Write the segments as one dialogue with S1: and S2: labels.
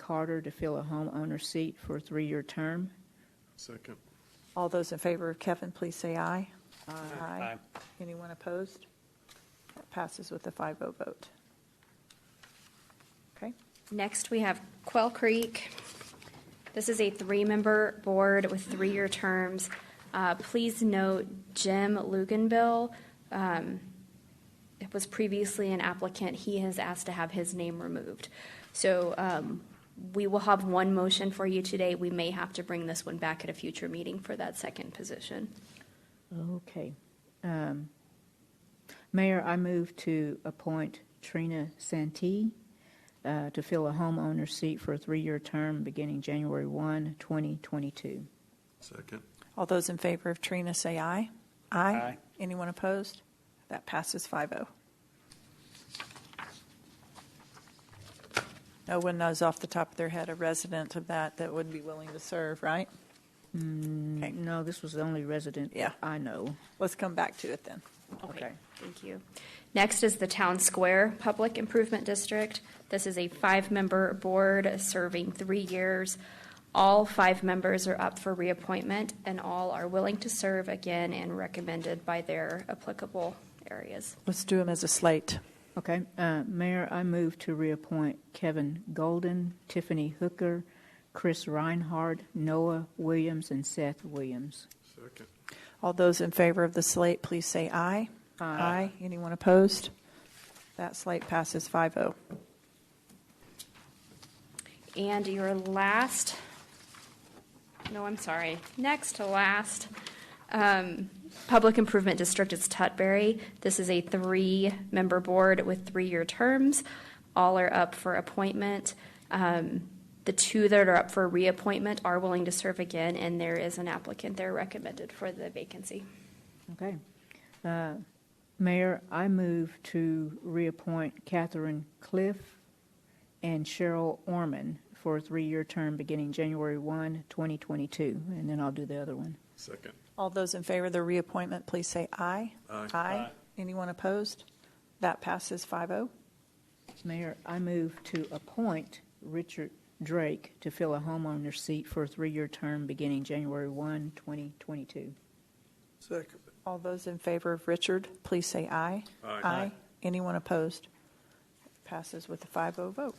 S1: Carter to fill a homeowner seat for a three-year term.
S2: Second.
S3: All those in favor of Kevin, please say aye. Aye. Anyone opposed? That Passes with a 5-0 vote. Okay,
S4: Next, we have Quell Creek. This is a three-member board with three-year terms. Uh, Please note Jim Luganville um, was previously an applicant. He has asked to have his name removed. So um, we will have one motion for you today. We may have to bring this one back at a future meeting for that second position.
S1: Okay. Um, Mayor, I move to appoint Trina Santee uh, to fill a homeowner seat for a three-year term beginning January 1, 2022.
S2: Second.
S3: all those in favor of Trina, say aye. Aye. Anyone opposed? That passes oh. 5-0. No one knows off the top of their head a resident of that that would be willing to serve, right? Okay,
S1: Mm, No, this was the only resident
S3: Yeah.
S1: I know.
S3: let's come back to it then.
S1: Okay.
S4: Thank you. Next is the Town Square Public Improvement District. This is a five-member board serving three years. All five members are up for reappointment, and all are willing to serve again and recommended by their applicable areas.
S3: Let's do them as a slate.
S1: Okay, uh, Mayor, I move to reappoint Kevin Golden, Tiffany Hooker, Chris Reinhardt, Noah Williams, and Seth Williams.
S2: Second.
S3: All those in favor of the slate, please say aye. Aye. Anyone opposed? That slate passes oh. 5-0.
S4: And your last, no, I'm sorry, next to last, um, Public Improvement District is Tutbury. This is a three-member board with three-year terms. All are up for appointment. Um, The two that are up for reappointment are willing to serve again, and there is an applicant there recommended for the vacancy.
S1: Okay. Uh, Mayor, I move to reappoint Catherine Cliff and Cheryl Orman for a three-year term beginning January 1, 2022, and then I'll do the other one.
S2: Second.
S3: All those in favor of the reappointment, please say aye.
S2: Aye.
S3: Aye. Anyone opposed? That passes oh. 5-0.
S1: Mayor, I move to appoint Richard Drake to fill a homeowner seat for a three-year term beginning January 1, 2022.
S2: Second.
S3: All those in favor of Richard, please say aye.
S2: Aye.
S3: Anyone opposed? Passes with a 5-0 vote.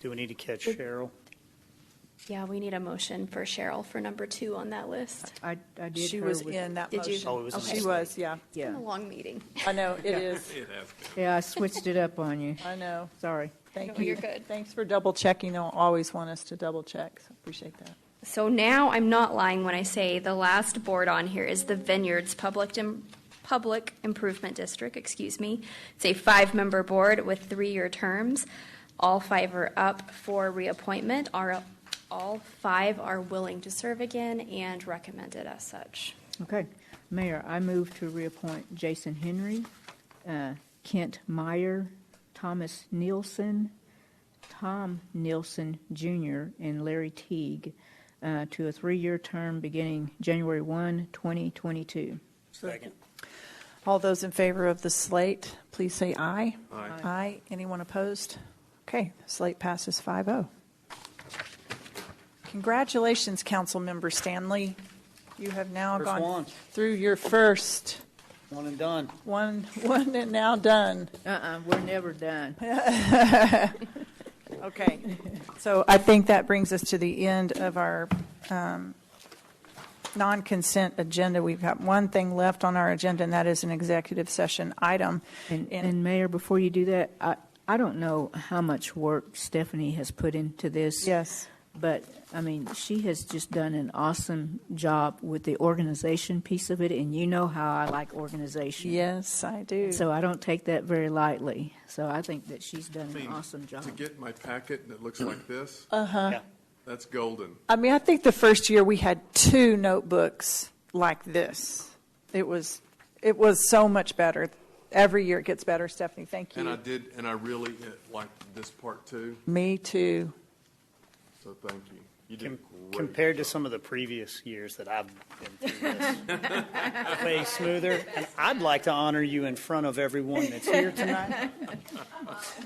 S5: Do we need to catch Cheryl?
S4: Yeah, we need a motion for Cheryl for number two on that list.
S1: I, I did
S3: She
S1: her
S3: was
S1: with-
S3: in that
S4: Did you?
S3: motion.
S5: Oh, it was in
S4: Okay.
S3: She was, yeah.
S1: Yeah,
S4: A long meeting.
S3: I know, it is.
S2: It has been.
S1: yeah, I switched it up on you,
S3: I know.
S1: sorry.
S3: Thank
S4: No,
S3: you.
S4: you're good.
S3: Thanks for double checking. They'll always want us to double check. So Appreciate that.
S4: So now I'm not lying when I say the last board on here is the Vineyards Public, Im- Public Improvement District, excuse me. It's a five-member board with three-year terms. All five are up for reappointment, are, all five are willing to serve again and recommended as such.
S1: Okay. Mayor, I move to reappoint Jason Henry, uh, Kent Meyer, Thomas Nielsen, Tom Nielsen Jr., and Larry Teague uh, to a three-year term beginning January 1, 2022.
S5: Second.
S3: All those in favor of the slate, please say aye.
S2: Aye.
S3: Aye. Anyone opposed? Okay, slate passes 5-0. Congratulations, Councilmember Stanley. You have now
S5: First
S3: gone
S5: one.
S3: through your first
S5: One and done.
S3: one, one and now done.
S1: Uh-uh, we're never done.
S3: Okay, so I think that brings us to the end of our um, non-consent agenda. We've got one thing left on our agenda, and that is an executive session item.
S1: And, and Mayor, before you do that, I, I don't know how much work Stephanie has put into this.
S3: Yes.
S1: But, I mean, she has just done an awesome job with the organization piece of it, and you know how I like organization.
S3: Yes, I do.
S1: So I don't take that very lightly. So I think that she's done
S2: I
S1: an
S2: mean,
S1: awesome job.
S2: To get my packet and it looks like this,
S5: Uh-huh.
S2: that's golden.
S3: I mean, I think the first year we had two notebooks like this. It was, it was so much better. Every year it gets better, Stephanie, thank
S2: And I
S3: you.
S2: did, and I really uh, liked this part too,
S3: Me too.
S2: so thank you.
S6: You did
S5: Com-
S6: great.
S5: Compared to some of the previous years that I've been through this, way smoother. And I'd like to honor you in front of everyone that's here tonight.